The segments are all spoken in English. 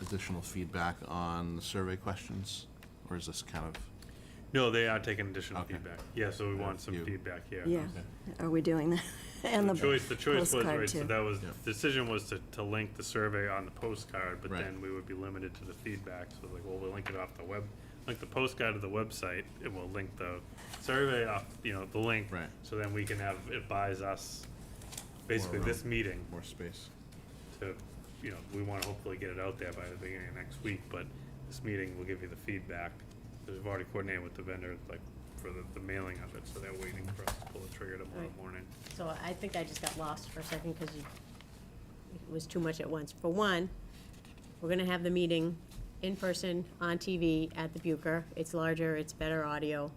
additional feedback on the survey questions? Or is this kind of, No, they are taking additional Okay. feedback. Yeah, so we want some You- feedback here. Yeah, are we doing that? And The choice, the choice was, postcard, right, so too. that was, Yeah. the decision was to, to link the survey on the postcard, but Right. then we would be limited to the feedback. So like, well, we'll link it off the web, link the postcard to the website, and we'll link the survey off, you know, the link. Right. So then we can have, it buys us basically room. this meeting more space? to, you know, we want to hopefully get it out there by the beginning of next week, but this meeting will give you the feedback. 'Cause We've already coordinated with the vendor, like, for the, the mailing of it, so they're waiting for us to pull the trigger tomorrow Right. morning. So I think I just got lost for a second because it was too much at once. For one, we're gonna have the meeting in person, on TV, at the Bucher. It's larger, it's better audio.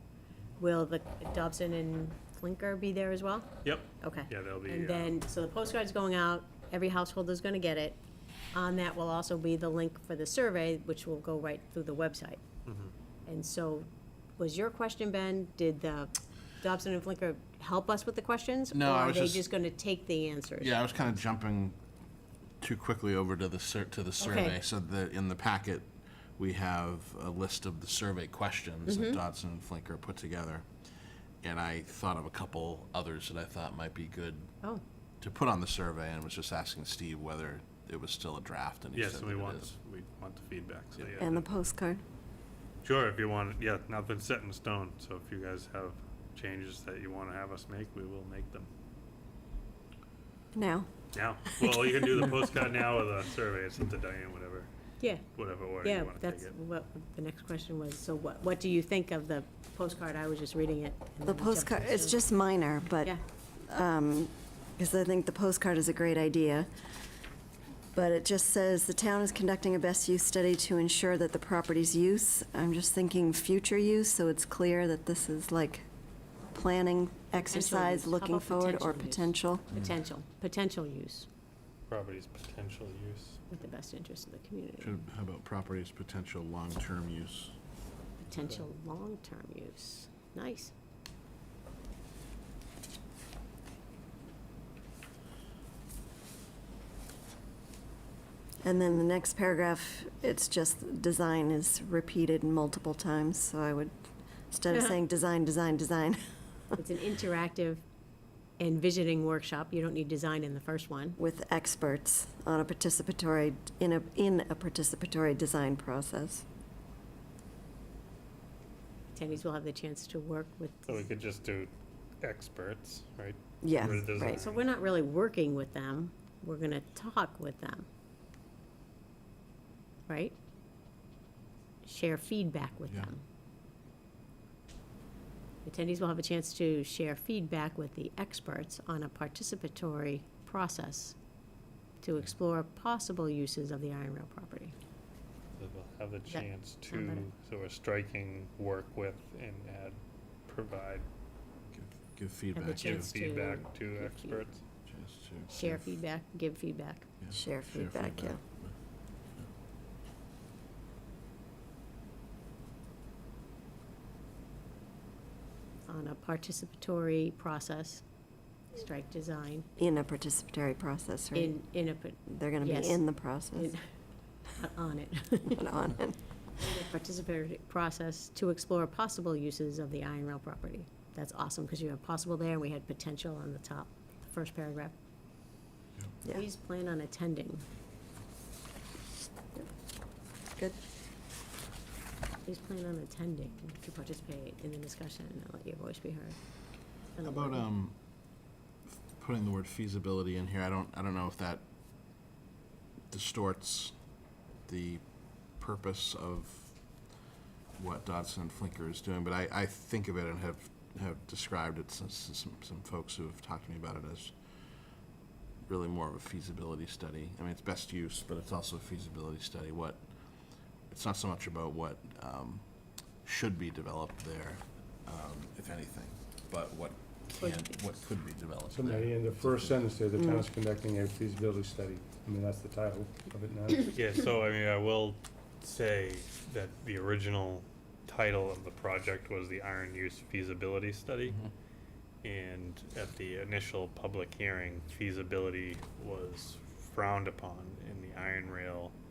Will the Dobson and Flinker be there as well? Yep. Okay. Yeah, they'll be, uh, And then, so the postcard's going out, every household is gonna get it. On that will also be the link for the survey, which will go right through the website. Mm-hmm. And so, was your question, Ben, did the Dobson and Flinker help us with the questions? No, I was Or are just- they just gonna take the answers? Yeah, I was kind of jumping too quickly over to the sur- to the survey. So the, in the packet, we have a list of the survey questions that Dodson and Flinker put together. And I thought of a couple others that I thought might be good Oh, to put on the survey and was just asking Steve whether it was still a draft and he Yes, said we that it want, is. the- we want the feedback, so yeah. And the postcard. Sure, if you want, it. yeah, nothing's set in stone, so if you guys have changes that you want to have us make, we will make them. Now, Now, well, you can do the postcard now or the survey, it's up to Diane, whatever, yeah, whatever order yeah, you want to take that's it. what, the next question was, so what, what do you think of the postcard? I was just reading it. and the then we jumped postcard, to the it's survey. just minor, but, Yeah, because I think the postcard is a great idea. But it just says, "The town is conducting a best use study to ensure that the property's use." I'm just thinking future use, so it's clear that this is like planning use. exercise, How looking about forward, or potential potential. potential, potential use Property's potential use. with the best interest of the community, Should- How about properties potential long-term use? potential long-term use. Nice. And then the next paragraph, it's just, "Design is repeated multiple times," so I would, instead of saying, "Design, design, design," It's an interactive and visioning workshop. You don't need design in the first one. with experts on a participatory, in a, in a participatory design process. Attendees will have the chance to work with, So we could just do experts, right? Yeah, Where it doesn't- right. so we're not really working with them. We're gonna talk with them. Right? Share feedback with Yeah. them. Attendees will have a chance to share feedback with the experts on a participatory process to explore possible uses of the Iron Rail property. So They'll have the That chance sound better? to, so we're striking work with and add, provide, Give- Give feedback. give chance to E. feedback to give experts. chance to Share give- feedback, give feedback. yeah, Share feedback, yeah. on a participatory process, strike design, In a participatory process, right? in, in a, par- They're gonna yes. be in the process, in- on it. and on it. Participatory process to explore possible uses of the iron rail property. That's awesome, because you have possible there, and we had potential on the top, the first paragraph. Yeah. Please plan on attending. Good. Please plan on attending to participate in the discussion and let your voice be heard. How And the about, wording. um, putting the word feasibility in here, I don't, I don't know if that distorts the purpose of what Dodson and Flinker is doing, but I, I think of it and have, have described it since, some, some folks who have talked to me about it as really more of a feasibility study. I mean, it's best use, but it's also a feasibility study, what, it's not so much about what, um, should be developed there, um, if anything, but what can, what could be developed So there. Mary, in the first sentence there, the town is conducting a feasibility study. I mean, that's the title of it now. Yeah, so I mean, I will say that the original title of the project was the Iron Use Feasibility Study. And at the initial public hearing, feasibility was frowned upon in the Iron Rail